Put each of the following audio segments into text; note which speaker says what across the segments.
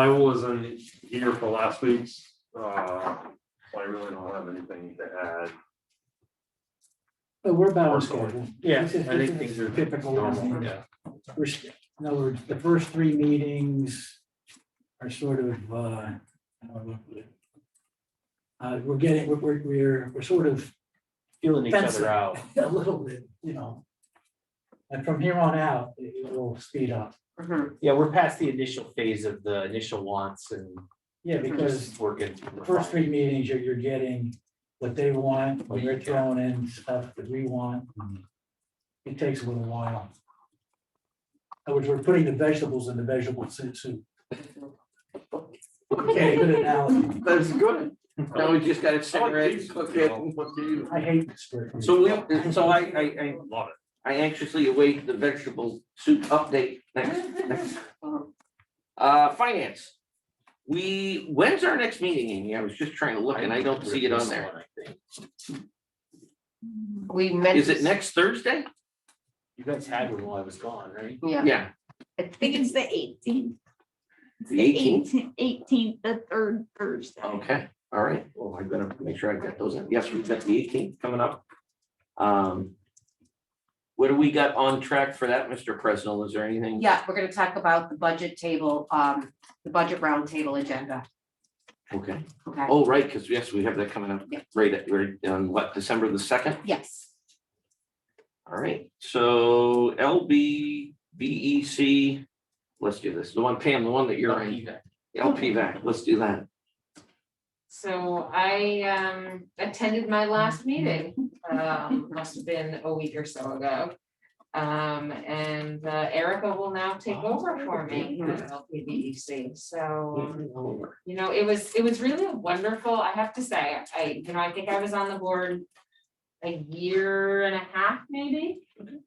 Speaker 1: I wasn't here for last week's, uh, so I really don't have anything to add.
Speaker 2: But we're about on
Speaker 1: First one.
Speaker 2: schedule.
Speaker 1: Yeah,
Speaker 2: This is-
Speaker 1: I think
Speaker 2: this is
Speaker 1: things are
Speaker 2: Typical.
Speaker 1: normal, yeah.
Speaker 2: We're, s- in other words, the first three meetings are sort of, uh, how do I look at it? Uh, we're getting, we're, we're, we're, we're sort of
Speaker 3: feeling each
Speaker 2: Fencing.
Speaker 3: other out.
Speaker 2: a little bit, you know. And from here on out, it it will speed up.
Speaker 4: Mhm.
Speaker 3: Yeah, we're past the initial phase of the initial wants and
Speaker 2: Yeah, because
Speaker 3: just working.
Speaker 2: the first three meetings, you're, you're getting what they want, what they're throwing in, stuff that we want. It takes a little while. In other words, we're putting the vegetables in the vegetable soup. soup. Okay, good analogy.
Speaker 5: That's good. Now we just gotta
Speaker 1: I like
Speaker 5: separate,
Speaker 1: these.
Speaker 5: cook it, and put the-
Speaker 2: I hate this word.
Speaker 5: So we, so I, I, I,
Speaker 1: Love
Speaker 5: I anxiously await the vegetable soup update next, next. Uh, finance. We, when's our next meeting, Amy? I was just trying to look and I don't see it on there.
Speaker 4: We meant.
Speaker 5: Is it next Thursday?
Speaker 3: You guys had one while I was gone, right?
Speaker 4: Yeah,
Speaker 5: Yeah,
Speaker 4: I think
Speaker 6: think
Speaker 4: it's,
Speaker 6: it's the eighteenth.
Speaker 5: The 18th?
Speaker 6: Eighteenth, the third Thursday.
Speaker 5: okay, all right. Well, I better make sure I got those in. Yes, we've got the eighteenth coming up. Um. What do we got on track for that, Mr. Presnell? Is there anything?
Speaker 4: yeah, we're gonna talk about the budget table, um, the budget roundtable agenda,
Speaker 5: Okay.
Speaker 4: okay?
Speaker 5: Oh, right, because yes, we have that coming up,
Speaker 4: Yep.
Speaker 5: right, at- right, on what, December the second?
Speaker 4: Yes,
Speaker 5: All right, so LB, BEC, E let's do this, the one, Pam, the one that you're
Speaker 3: E
Speaker 5: in, LPVAC, let's do that.
Speaker 7: So I um attended my last meeting, um must have been a week or so ago. Um and uh, Erica will now take over for me at LPDEC, E so um, you know, it was, it was really wonderful, I have to say, I, you know, I think I was on the board. A year and a half maybe,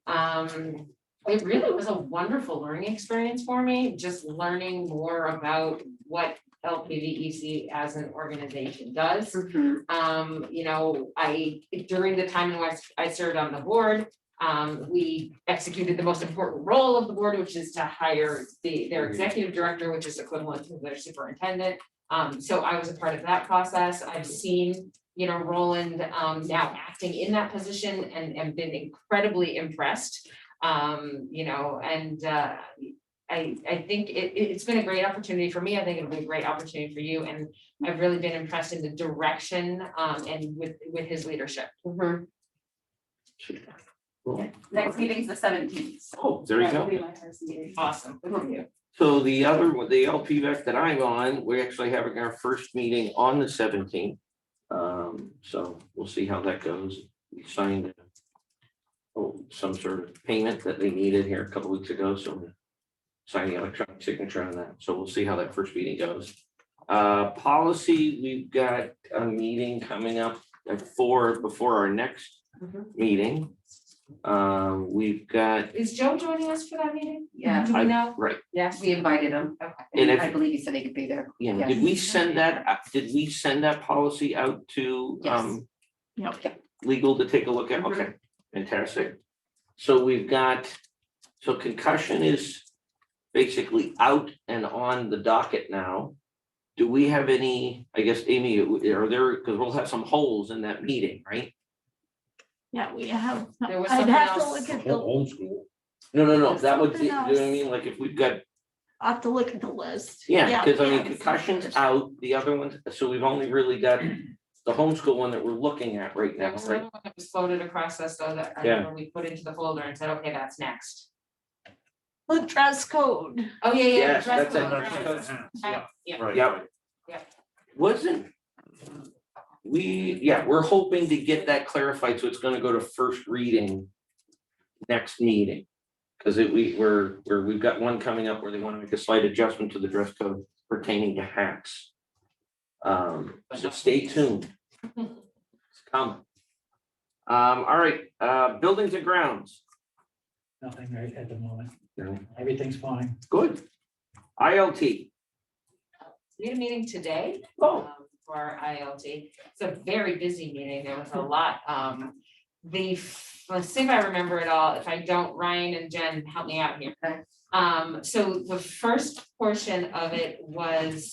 Speaker 7: um, it really was a wonderful learning experience for me, just learning more about what LPVEC E as an organization does.
Speaker 4: Mhm.
Speaker 7: Um, you know, I, during the time in which I served on the board, um, we executed the most important role of the board, which is to hire the, their executive director, which is equivalent to their superintendent. Um, so I was a part of that process. I've seen, you know, Roland, um, now acting in that position and, and been incredibly impressed. Um, you know, and, uh, I, I think it, it- it's been a great opportunity for me. I think it'll be a great opportunity for you and I've really been impressed in the direction um and with with his leadership. Mm-hmm,
Speaker 4: Mhm.
Speaker 5: Cool.
Speaker 6: Next meeting's the seventeenth.
Speaker 5: Oh, there you go.
Speaker 7: Awesome. Good for you.
Speaker 5: So the other, one, the LPVAC that I'm on, we're actually having our first meeting on the seventeenth. Um, so we'll see how that goes. We signed oh, some sort of payment that they needed here a couple weeks ago, so we're signing electronic signature on that. So we'll see how that first meeting goes. Uh, policy, we've got a meeting coming up at four before our next
Speaker 4: Mhm.
Speaker 5: meeting. Um, we've got,
Speaker 7: Is Joe joining us for that meeting?
Speaker 4: Yeah,
Speaker 7: Do
Speaker 5: I-
Speaker 7: we know?
Speaker 5: right,
Speaker 4: yes, we invited him.
Speaker 7: Okay.
Speaker 5: And if-
Speaker 4: I believe he said he could be there.
Speaker 5: Yeah, did we
Speaker 4: Yes.
Speaker 5: send that, out- did we send that policy out to
Speaker 4: Yes.
Speaker 5: um
Speaker 6: Yep.
Speaker 5: legal to take a look at?
Speaker 4: Mhm.
Speaker 5: Okay, fantastic. So we've got, so concussion is basically out and on the docket now. Do we have any, I guess, Amy, are there, because we'll have some holes in that meeting, right?
Speaker 6: Yeah, we have,
Speaker 7: There was
Speaker 6: I'd
Speaker 7: something
Speaker 6: have to
Speaker 7: else.
Speaker 6: look at
Speaker 1: it.
Speaker 6: the,
Speaker 1: Old school.
Speaker 5: No, no, no, that would, be- you know what I
Speaker 6: Something
Speaker 5: mean? Like if we've got,
Speaker 6: I'll have to look at the list.
Speaker 5: yeah, because I mean,
Speaker 6: yeah,
Speaker 5: concussion's out, the other ones, so we've only really got the homeschool one that we're looking at right
Speaker 7: There
Speaker 5: now,
Speaker 7: was
Speaker 5: right?
Speaker 7: another one that was floated across us though that I
Speaker 5: Yeah.
Speaker 7: remember we put into the folder and said, okay, that's next.
Speaker 6: The dress code.
Speaker 7: Oh, yeah, yeah.
Speaker 5: Yes,
Speaker 7: dress
Speaker 5: that's it.
Speaker 7: code, right.
Speaker 1: That's-
Speaker 7: Yeah, yeah.
Speaker 1: Right.
Speaker 5: Yep. Wasn't. We, yeah, we're hoping to get that clarified, so it's gonna go to first reading next meeting. Cause it, we, we're, we're, we've got one coming up where they wanna make a slight adjustment to the dress code pertaining to hats. Um, so stay tuned. It's coming. Um, all right, uh, buildings and grounds,
Speaker 2: Nothing right at the moment.
Speaker 5: No.
Speaker 2: Everything's fine.
Speaker 5: good. ILT,
Speaker 7: We had a meeting today.
Speaker 5: oh,
Speaker 7: um, for our ILT. It's a very busy meeting. There was a lot. Um, the, let's see if I remember it all. If I don't, Ryan and Jen, help me out here. Um, so the first portion of it was